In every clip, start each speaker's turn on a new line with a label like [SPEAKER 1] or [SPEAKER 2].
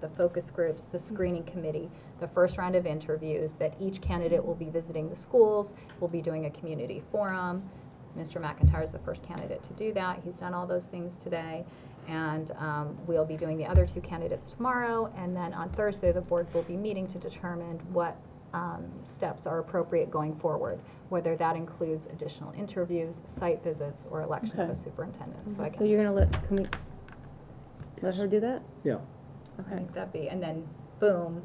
[SPEAKER 1] the focus groups, the screening committee, the first round of interviews, that each candidate will be visiting the schools, will be doing a community forum. Mr. McIntyre is the first candidate to do that. He's done all those things today. And um, we'll be doing the other two candidates tomorrow. And then on Thursday, the board will be meeting to determine what um, steps are appropriate going forward, whether that includes additional interviews, site visits, or election of a
[SPEAKER 2] Okay.
[SPEAKER 1] superintendent. So I
[SPEAKER 2] So
[SPEAKER 1] can,
[SPEAKER 2] you're gonna let, can we, let her do that?
[SPEAKER 3] Yeah,
[SPEAKER 1] I
[SPEAKER 2] Okay.
[SPEAKER 1] think that'd be, and then boom,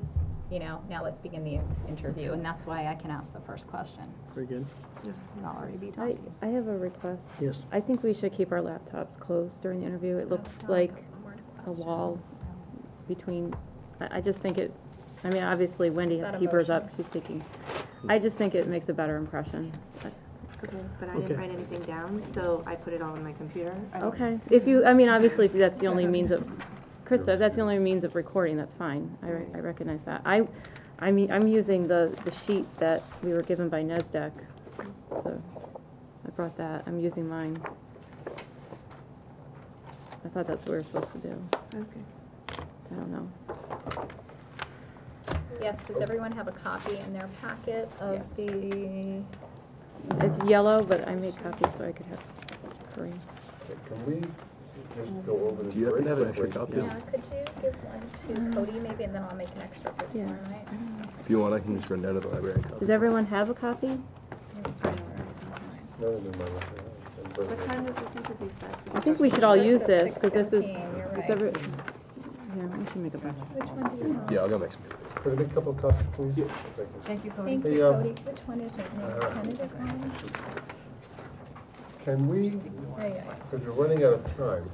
[SPEAKER 1] you know, now let's begin the interview. And that's why I can ask the first question.
[SPEAKER 3] very good.
[SPEAKER 1] And I'll already be
[SPEAKER 2] I,
[SPEAKER 1] talking.
[SPEAKER 2] I have a request.
[SPEAKER 3] Yes.
[SPEAKER 2] I think we should keep our laptops closed during the interview. It looks like a wall between, I, I just think it, I mean, obviously Wendy
[SPEAKER 1] Is that
[SPEAKER 2] has to
[SPEAKER 1] a
[SPEAKER 2] keep hers up,
[SPEAKER 1] motion?
[SPEAKER 2] she's taking. I just think it makes a better impression.
[SPEAKER 4] Okay, but I
[SPEAKER 3] Okay.
[SPEAKER 4] didn't write anything down, so I put it all in my computer. I don't-
[SPEAKER 2] Okay, if you, I mean, obviously, if that's the only means of, Krista, if that's the only means of recording, that's fine. I, re- I recognize that. I, I mean, I'm using the, the sheet that we were given by NESDAQ, so I brought that. I'm using mine. I thought that's what we were supposed to do.
[SPEAKER 4] Okay.
[SPEAKER 2] I don't know.
[SPEAKER 1] Um, Yes, does everyone have a copy in their packet
[SPEAKER 2] Yes.
[SPEAKER 1] of the?
[SPEAKER 2] It's yellow, but I made copies so I could have green.
[SPEAKER 5] Can we just go over this
[SPEAKER 3] Do you
[SPEAKER 5] very
[SPEAKER 3] happen to have an extra
[SPEAKER 5] quickly?
[SPEAKER 3] copy?
[SPEAKER 1] Yeah, could you give one to Cody maybe, and then I'll make an extra for
[SPEAKER 2] Um, Yeah.
[SPEAKER 1] tomorrow night?
[SPEAKER 3] If you want, I can just run down to the library and copy.
[SPEAKER 2] Does everyone have a copy?
[SPEAKER 5] No, never mind. It's in
[SPEAKER 4] What
[SPEAKER 5] progress.
[SPEAKER 4] time does this interview start? So
[SPEAKER 2] I
[SPEAKER 4] it's
[SPEAKER 2] think
[SPEAKER 4] our
[SPEAKER 2] we should all
[SPEAKER 1] Starts
[SPEAKER 2] use
[SPEAKER 1] at
[SPEAKER 2] this, because this is,
[SPEAKER 1] 6:15, you're
[SPEAKER 2] this
[SPEAKER 1] right.
[SPEAKER 2] is every, yeah, we should make a bunch.
[SPEAKER 1] Which one do you want?
[SPEAKER 3] Yeah, I'll go make some.
[SPEAKER 5] Could I make a couple of copies, please?
[SPEAKER 6] Thank you, Cody.
[SPEAKER 1] Thank you,
[SPEAKER 5] Hey, uh,
[SPEAKER 1] Cody. Which one is it? Maybe
[SPEAKER 5] uh,
[SPEAKER 1] tentative one?
[SPEAKER 5] Can we,
[SPEAKER 1] Yeah, yeah.
[SPEAKER 5] because we're running out of time,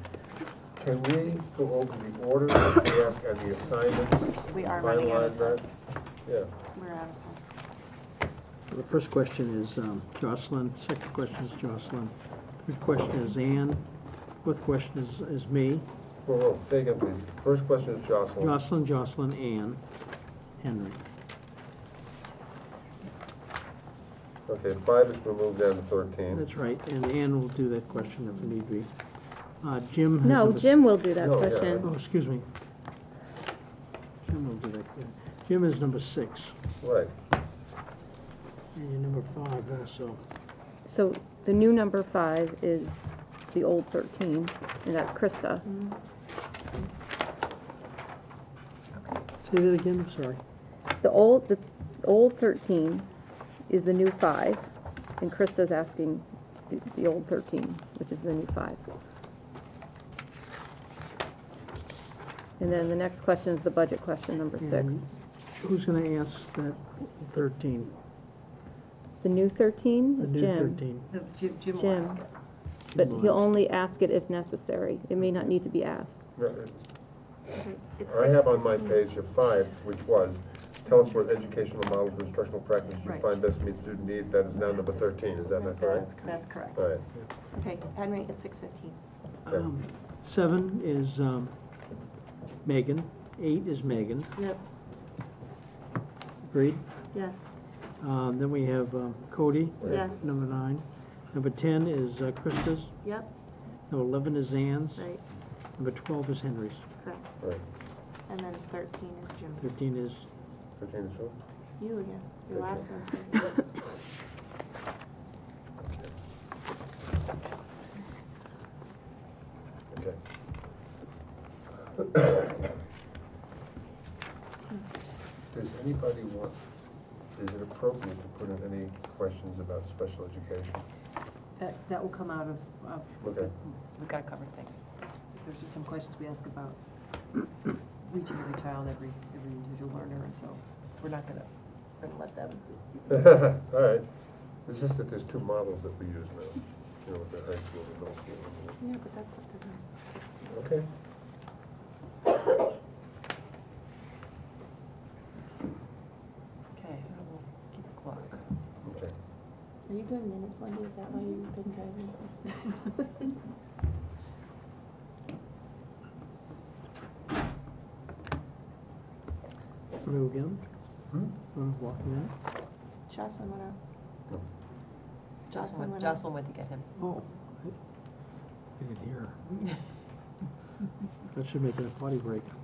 [SPEAKER 5] can we go over the order of the ask and the assignments?
[SPEAKER 4] We are running out of
[SPEAKER 5] finalize
[SPEAKER 4] time.
[SPEAKER 5] that? Yeah.
[SPEAKER 4] We're out of time.
[SPEAKER 7] The first question is um, Jocelyn, second question is Jocelyn, third question is Ann, fourth question is, is me,
[SPEAKER 5] Whoa, whoa, say again, please. First question is Jocelyn.
[SPEAKER 7] Jocelyn, Jocelyn, Ann, Henry.
[SPEAKER 5] Okay, five is removed down to thirteen.
[SPEAKER 7] That's right, and Ann will do that question if need be. Uh, Jim has.
[SPEAKER 2] No,
[SPEAKER 7] number s-
[SPEAKER 2] Jim will do that
[SPEAKER 5] No, yeah,
[SPEAKER 2] question.
[SPEAKER 7] Oh, excuse me. Jim will do that. question. Jim is number six,
[SPEAKER 5] Right.
[SPEAKER 7] and you're number five also.
[SPEAKER 2] So the new number five is the old thirteen, and that's Krista.
[SPEAKER 4] Mm-hmm.
[SPEAKER 7] Say that again, I'm sorry.
[SPEAKER 2] The old, the old thirteen is the new five, and Krista's asking the, the old thirteen, which is the new five. And then the next question is the budget question, number six.
[SPEAKER 7] And Who's gonna ask that thirteen,
[SPEAKER 2] The new thirteen
[SPEAKER 7] the
[SPEAKER 2] is
[SPEAKER 7] new
[SPEAKER 2] Jim.
[SPEAKER 7] thirteen?
[SPEAKER 6] The Jim, Jim will ask
[SPEAKER 2] Jim.
[SPEAKER 6] it.
[SPEAKER 2] But he'll only ask it if necessary. It may not need to be asked.
[SPEAKER 4] It's
[SPEAKER 5] I
[SPEAKER 4] six-
[SPEAKER 5] have on my page a five, which was, tell us what educational model for instructional practice you
[SPEAKER 6] Right.
[SPEAKER 5] find best meets student needs, that is now number thirteen, is that not correct?
[SPEAKER 6] That's correct.
[SPEAKER 5] All right,
[SPEAKER 4] Okay, Henry, it's six fifteen.
[SPEAKER 7] Um, Seven is um, Megan, eight is Megan,
[SPEAKER 4] Yep,
[SPEAKER 7] agreed?
[SPEAKER 4] yes,
[SPEAKER 7] Um, Then we have um, Cody,
[SPEAKER 4] yes,
[SPEAKER 7] number nine. Number 10 is uh, Krista's,
[SPEAKER 4] yep,
[SPEAKER 7] number 11 is Ann's,
[SPEAKER 4] right,
[SPEAKER 7] number 12 is Henry's,
[SPEAKER 4] correct.
[SPEAKER 5] right.
[SPEAKER 4] And then thirteen is Jim.
[SPEAKER 7] 13 is,
[SPEAKER 5] Thirteen is who?
[SPEAKER 4] You again, your last
[SPEAKER 5] Okay.
[SPEAKER 4] one.
[SPEAKER 5] Okay. Does anybody want, is it appropriate to put in any questions about special education?
[SPEAKER 6] That, that will come out of, s- of.
[SPEAKER 5] Okay.
[SPEAKER 6] We've got it covered, thanks. There's just some questions we ask about reaching every child, every, every individual learner, and so we're not gonna, we're gonna let them.
[SPEAKER 5] All right. It's just that there's two models that we use now, you know, with the high school and middle school.
[SPEAKER 4] Yeah, but that's up to them.
[SPEAKER 5] Okay.
[SPEAKER 6] Okay, I will keep the clock.
[SPEAKER 5] Okay.
[SPEAKER 4] Are you doing minutes, Wendy? Is that why you've been driving?
[SPEAKER 7] what do we get 'em?
[SPEAKER 5] Hmm?
[SPEAKER 7] I'm walking in.
[SPEAKER 4] Jocelyn went out.
[SPEAKER 5] No.
[SPEAKER 4] Jocelyn went out.
[SPEAKER 6] Jocelyn went to get him.
[SPEAKER 7] Oh, I I didn't hear. That should make it a potty break.